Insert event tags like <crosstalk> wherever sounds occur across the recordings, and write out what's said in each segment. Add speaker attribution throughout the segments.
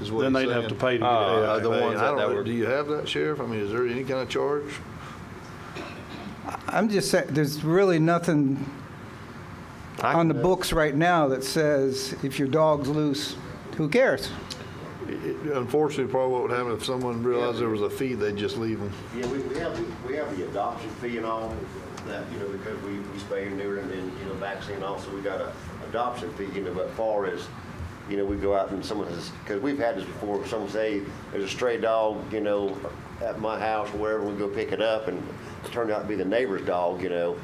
Speaker 1: is what
Speaker 2: Then
Speaker 1: he's
Speaker 2: they'd have to
Speaker 1: saying.
Speaker 2: pay to get
Speaker 3: Uh,
Speaker 2: it.
Speaker 1: Uh, the
Speaker 3: I mean,
Speaker 1: ones
Speaker 3: I
Speaker 1: that
Speaker 3: don't
Speaker 1: that
Speaker 3: know.
Speaker 1: were, do you have that, Sheriff? I mean, is there any kind of charge?
Speaker 4: I'm just saying, there's really nothing on the books right now that says if your dog's loose, who cares?
Speaker 1: It- Unfortunately, probably what would happen if someone realized there was a fee, they'd just leave them.
Speaker 5: Yeah, we, we have, the- we have the adoption fee and all that, you know, because we, we spay and neuter and, then, you know, vaccine also, we got a adoption fee, you know, but far as, you know, we go out and someone says, because we've had this before, someone say, there's a stray dog, you know, at my house, or wherever, we go pick it up and it turned out to be the neighbor's dog, you know,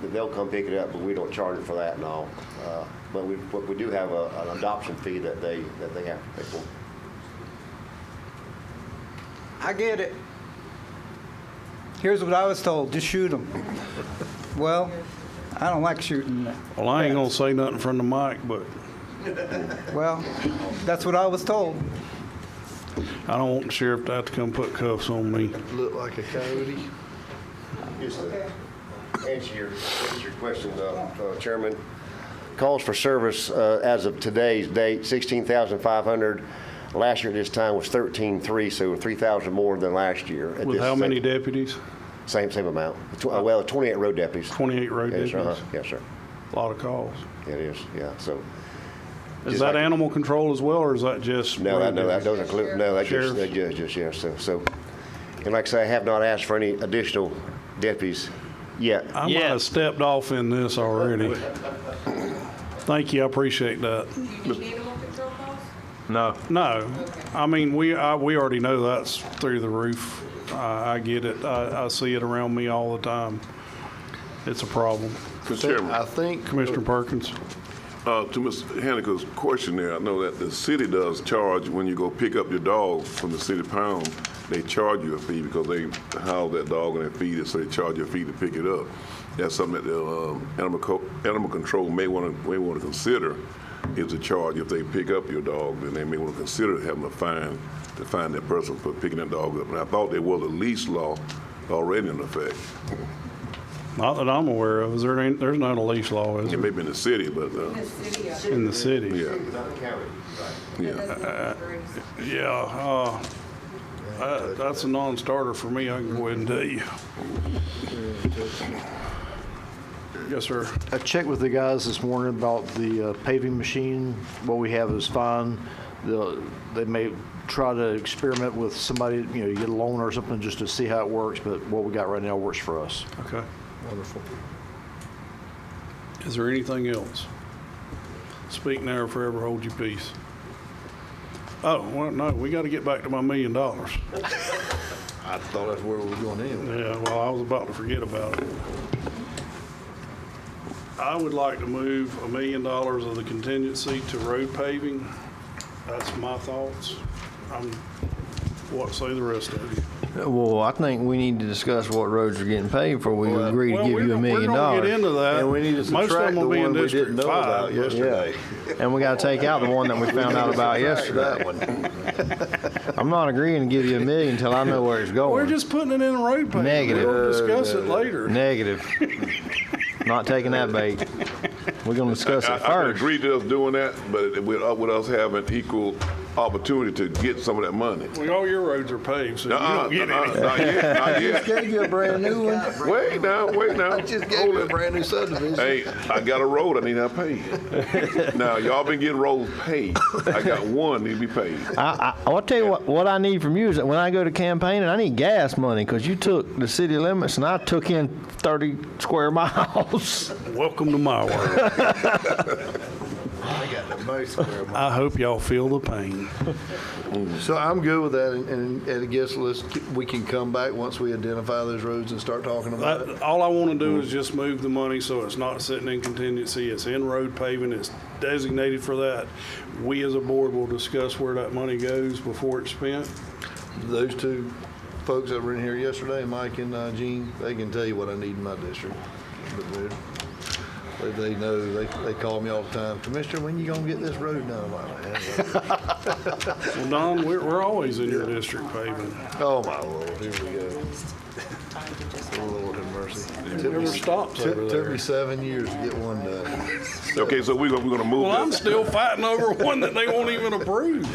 Speaker 5: th- they'll come pick it up, but we don't charge them for that and all. Uh, But we, but we do have a, an adoption fee that they, that they have to pay for.
Speaker 4: I get it. Here's what I was told, just shoot <laughs> them. Well, I don't like shooting.
Speaker 2: Well, I ain't gonna say nothing from the mic, but
Speaker 4: Well, that's what I was told.
Speaker 2: I don't want the sheriff to have to come put cuffs on me.
Speaker 1: Look like a coyote.
Speaker 5: Just to answer your, answer your question, uh, uh, Chairman, calls for service uh, as of today's date, 16,500. Last year at this time was 13,300, so 3,000 more than last year. at
Speaker 2: With
Speaker 5: this
Speaker 2: how
Speaker 5: same-
Speaker 2: many deputies?
Speaker 5: Same, same amount. Tw- uh, Well, 28 road deputies.
Speaker 2: 28 road
Speaker 5: Yes, uh-huh.
Speaker 2: deputies.
Speaker 5: Yes, sir.
Speaker 2: A lot of calls.
Speaker 5: It is, yeah, so.
Speaker 2: Is
Speaker 5: Just
Speaker 2: that
Speaker 5: like-
Speaker 2: animal control as well, or is that just?
Speaker 5: No,
Speaker 2: road
Speaker 5: that, no, that
Speaker 2: deputies?
Speaker 5: doesn't include, no, that just,
Speaker 2: Sheriff.
Speaker 5: that just, just, yeah, so, so. And like I say, I have not asked for any additional deputies yet.
Speaker 2: I might have stepped off in this already. Thank you, I appreciate that.
Speaker 6: You need animal control calls?
Speaker 3: No.
Speaker 2: No, I mean, we, I, we already know that's through the roof. I, I get it. I, I see it around me all the time. It's a problem.
Speaker 7: Mr. Chairman,
Speaker 1: I think
Speaker 2: Commissioner Perkins?
Speaker 7: uh, to Mr. Haneke's question there, I know that the city does charge when you go pick up your dog from the city pound, they charge you a fee because they house that dog and they feed it, so they charge you a fee to pick it up. That's something that the um, animal co- animal control may want to may want to consider is a charge if they pick up your dog, then they may want to consider having a fine to find that person for picking that dog up. And I thought there was a leash law already in effect.
Speaker 2: Not that I'm aware of. Is there, any- there's not a leash law, is
Speaker 7: It
Speaker 2: there,
Speaker 7: may be in the city, but uh,
Speaker 6: The city, uh,
Speaker 2: in the city?
Speaker 7: yeah,
Speaker 5: Not the county, right.
Speaker 6: that
Speaker 7: yeah.
Speaker 6: doesn't include breeds.
Speaker 2: Yeah, uh, that- that's a non-starter for me. I can go ahead and tell you. Yes, sir.
Speaker 8: I checked with the guys this morning about the uh, paving machine. What we have is fine. They'll- They may try to experiment with somebody, you know, you get a loan or something just to see how it works, but what we got right now works for us.
Speaker 2: Okay. Wonderful. Is there anything else? Speak now or forever hold your peace. Oh, well, no, we got to get back to my million dollars.
Speaker 1: I thought that's where we were going anyway.
Speaker 2: Yeah, well, I was about to forget about it. I would like to move a million dollars of the contingency to road paving. That's my thoughts. I'm, what say the rest of you?
Speaker 9: Well, I think we need to discuss what roads are getting paid before we agree to
Speaker 2: Well,
Speaker 9: give
Speaker 2: we're
Speaker 9: you a
Speaker 2: gonna-
Speaker 9: million
Speaker 2: We're going to
Speaker 9: dollars.
Speaker 2: get into that.
Speaker 1: And we need to
Speaker 2: Most of
Speaker 1: subtract
Speaker 2: them
Speaker 1: the
Speaker 2: will be in
Speaker 1: one we didn't
Speaker 2: District
Speaker 1: know about
Speaker 2: Five.
Speaker 1: yesterday.
Speaker 9: And we gotta take out the one that we found out about yesterday.
Speaker 1: That one.
Speaker 9: I'm not agreeing to give you a million until I know where it's
Speaker 2: We're
Speaker 9: going.
Speaker 2: just putting it in a road paving.
Speaker 9: Negative.
Speaker 2: We'll discuss it later.
Speaker 9: Negative. Not taking that bait. We're gonna discuss
Speaker 7: I,
Speaker 9: it
Speaker 7: I can
Speaker 9: first.
Speaker 7: agree to us doing that, but it- with, uh, with us having equal opportunity to get some of that money.
Speaker 2: Well, all your roads are paved, so you
Speaker 7: Uh-uh,
Speaker 2: don't get
Speaker 7: uh-uh,
Speaker 2: any.
Speaker 1: <laughs>
Speaker 7: Not yet, not yet.
Speaker 1: Gave you a brand new one.
Speaker 7: Wait now, wait now.
Speaker 1: I just gave
Speaker 7: Hold
Speaker 1: you a
Speaker 7: it.
Speaker 1: brand new subdivision.
Speaker 7: Hey, I got a road I need to
Speaker 1: <laughs>
Speaker 7: pay. Now, y'all been getting roads paid. I got one need to be paid.
Speaker 9: I, I, I'll tell you what, what I need from you is that when I go to campaigning, I need gas money because you took the city limits and I took in 30 square <laughs> miles.
Speaker 2: Welcome to my world.
Speaker 1: I got the most square mile.
Speaker 2: I hope y'all feel the pain.
Speaker 1: So I'm good with that, and- and, and I guess let's, we can come back once we identify those roads and start talking about it.
Speaker 2: That, all I want to do is just move the money so it's not sitting in contingency. It's in road paving. It's designated for that. We as a board will discuss where that money goes before it's spent. Uh,
Speaker 1: Those two folks that were in here yesterday, Mike and uh, Gene, they can tell you what I need in my district. But they're- They, they know, they, they call me all the time, Commissioner, when you gonna get this road done? I'm like, "Man,
Speaker 2: Well, Don, we're, we're always in your district paving.
Speaker 1: Oh, my Lord, here we go. Oh, Lord have mercy.
Speaker 2: It never stops over
Speaker 1: Took, took
Speaker 2: there.
Speaker 1: me seven years to get one done.
Speaker 7: Okay, so we're gonna, we're gonna move
Speaker 2: Well, I'm
Speaker 7: this.
Speaker 2: still fighting over one that they won't even approve.